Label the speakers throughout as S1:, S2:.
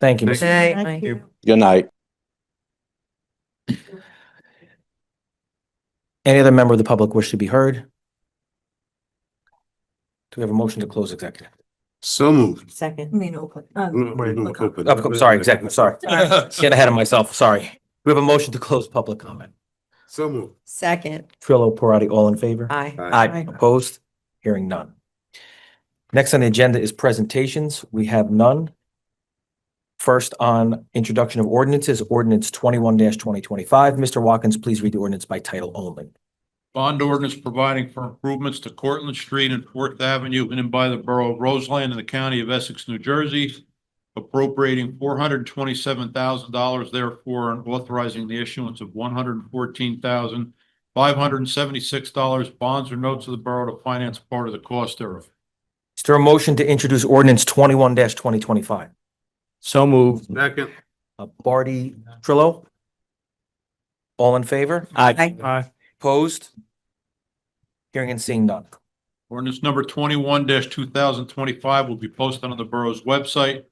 S1: Thank you.
S2: Thank
S1: Mr.
S2: you.
S3: Night,
S4: Thank
S3: Mike.
S4: you.
S5: Good night.
S1: Any other member of the public wish to be heard? Do we have a motion to close executive?
S2: So moved.
S3: Second.
S4: I mean, open. uh,
S2: Move open.
S1: Oh, I'm sorry, executive, sorry. Get ahead of myself, sorry. We have a motion to close public comment.
S2: So moved.
S3: Second.
S1: Trillo, Parati, all in favor?
S3: Aye.
S1: Aye, opposed, hearing none. Next on the agenda is presentations. We have none. First on introduction of ordinances, ordinance twenty-one twenty twenty-five. Mr. Watkins, please read the ordinance by title only.
S6: Bond ordinance providing for improvements to Cortlandt Street and Fourth Avenue in and by the Borough of Roseland in the County of Essex, New Jersey, appropriating four hundred and twenty-seven thousand dollars therefore and authorizing the issuance of one hundred and fourteen thousand five hundred and seventy-six dollars bonds or notes of the borough to finance part of the cost thereof.
S1: Is there a motion to introduce ordinance twenty-one twenty twenty-five?
S5: So moved.
S2: Second.
S1: Uh, Barty, Trillo? All in favor?
S5: Aye.
S1: Opposed? Hearing and seeing none.
S6: Ordinance number twenty-one two thousand twenty-five will be posted on the borough's website.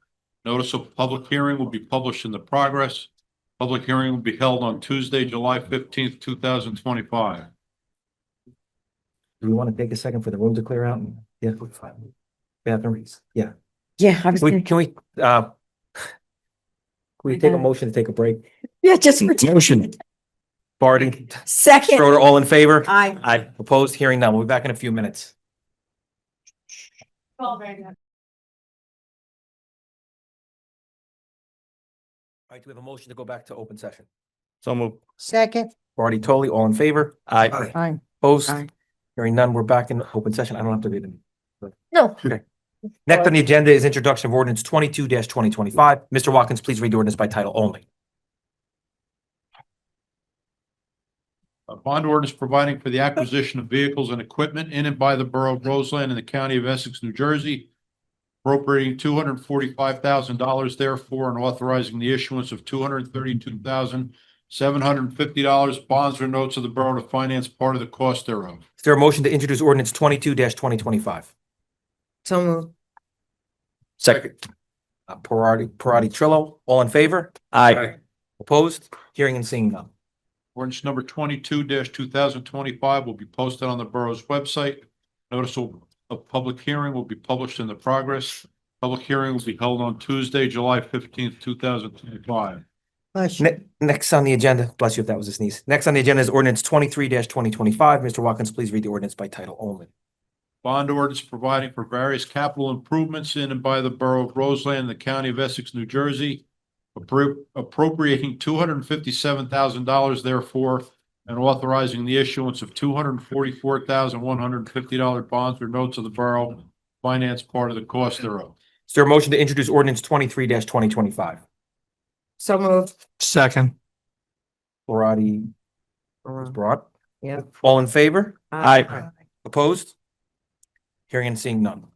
S6: Notice of public hearing will be published in the progress. Public hearing will be held on Tuesday, July fifteenth, two thousand twenty-five.
S1: Do we want to take a second for the room to clear out? and- Yeah. Bathroom, yeah.
S3: Yeah, I was,
S1: We,
S3: gonna-
S1: can we, uh, can we
S3: My
S1: take a
S3: God.
S1: motion to take a break?
S3: yeah, just for.
S5: Motion.
S1: Barty,
S3: Second.
S1: Schroeder, all in favor?
S3: Aye.
S1: Aye. Opposed, hearing none. We'll be back in a few minutes. All right, do we have a motion to go back to open session?
S5: So moved.
S3: Second.
S1: Barty, Toley, all in favor?
S5: Aye.
S3: Aye.
S1: Opposed?
S3: Aye.
S1: Hearing none, we're back in open session. I don't have to read them.
S3: No.
S1: Next on the agenda is introduction of ordinance twenty-two twenty twenty-five. Mr. Watkins, please read the ordinance by title only.
S6: A bond ordinance providing for the acquisition of vehicles and equipment in and by the borough of Roseland in the county of Essex, New Jersey. Appropriating two hundred and forty-five thousand dollars therefore and authorizing the issuance of two hundred and thirty-two thousand seven hundred and fifty dollars bonds or notes of the borough to finance part of the cost thereof.
S1: Is there a motion to introduce ordinance twenty-two twenty twenty-five?
S3: So moved.
S1: Second. Uh, Parati, Parati, Trillo, all in favor?
S5: Aye.
S1: Opposed? Hearing and seeing none.
S6: Ordinance number twenty-two two thousand twenty-five will be posted on the borough's website. Notice of of public hearing will be published in the progress. Public hearing will be held on Tuesday, July fifteenth, two thousand twenty-five.
S1: Ne- next on the agenda, bless you if that was a sneeze. Next on the agenda is ordinance twenty-three twenty twenty-five. Mr. Watkins, please read the ordinance by title only.
S6: Bond ordinance providing for various capital improvements in and by the borough of Roseland in the county of Essex, New Jersey. appro- Appropriating two hundred and fifty-seven thousand dollars therefore and authorizing the issuance of two hundred and forty-four thousand one hundred and fifty dollar bonds or notes of the borough. Finance part of the cost thereof.
S1: Is there a motion to introduce ordinance twenty-three twenty twenty-five?
S3: So moved.
S5: Second.
S1: Parati, brought.
S3: Yeah.
S1: All in favor?
S5: Aye.
S1: Opposed? Hearing and seeing none.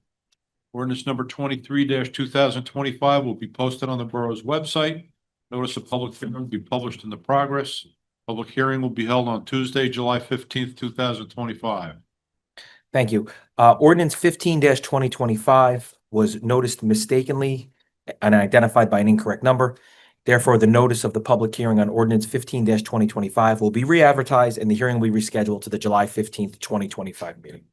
S6: Ordinance number twenty-three two thousand twenty-five will be posted on the borough's website. Notice of public hearing will be published in the progress. Public hearing will be held on Tuesday, July fifteenth, two thousand twenty-five.
S1: Thank you. Uh, ordinance fifteen twenty twenty-five was noticed mistakenly and identified by an incorrect number. Therefore, the notice of the public hearing on ordinance fifteen twenty twenty-five will be re-advertised and the hearing will be rescheduled to the July fifteenth, twenty twenty-five meeting.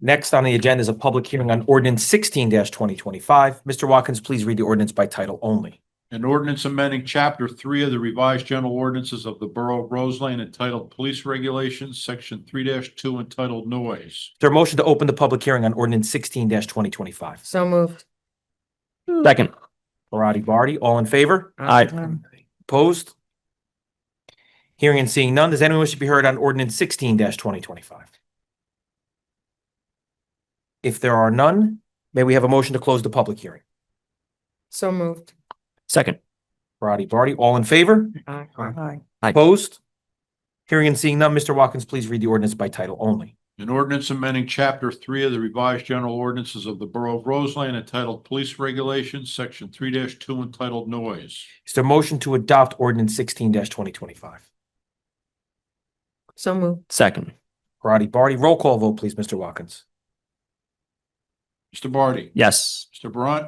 S1: Next on the agenda is a public hearing on ordinance sixteen twenty twenty-five. Mr. Watkins, please read the ordinance by title only.
S6: An ordinance amending chapter three of the revised general ordinances of the Borough of Roseland entitled Police Regulations, section three two entitled Noise.
S1: Is there a motion to open the public hearing on ordinance sixteen twenty twenty-five?
S3: So moved.
S5: Second.
S1: Parati, Barty, all in favor?
S5: Aye.
S1: Opposed? Hearing and seeing none, does anyone wish to be heard on ordinance sixteen twenty twenty-five? If there are none, may we have a motion to close the public hearing?
S3: So moved.
S5: Second.
S1: Parati, Barty, all in favor?
S3: Aye.
S5: Aye.
S1: Opposed? Hearing and seeing none, Mr. Watkins, please read the ordinance by title only.
S6: An ordinance amending chapter three of the revised general ordinances of the Borough of Roseland entitled Police Regulations, section three two entitled Noise.
S1: Is there a motion to adopt ordinance sixteen twenty twenty-five?
S3: So moved.
S5: Second.
S1: Parati, Barty, roll call vote, please, Mr. Watkins.
S6: Mr. Barty?
S5: Yes.
S6: Mr. Brunt?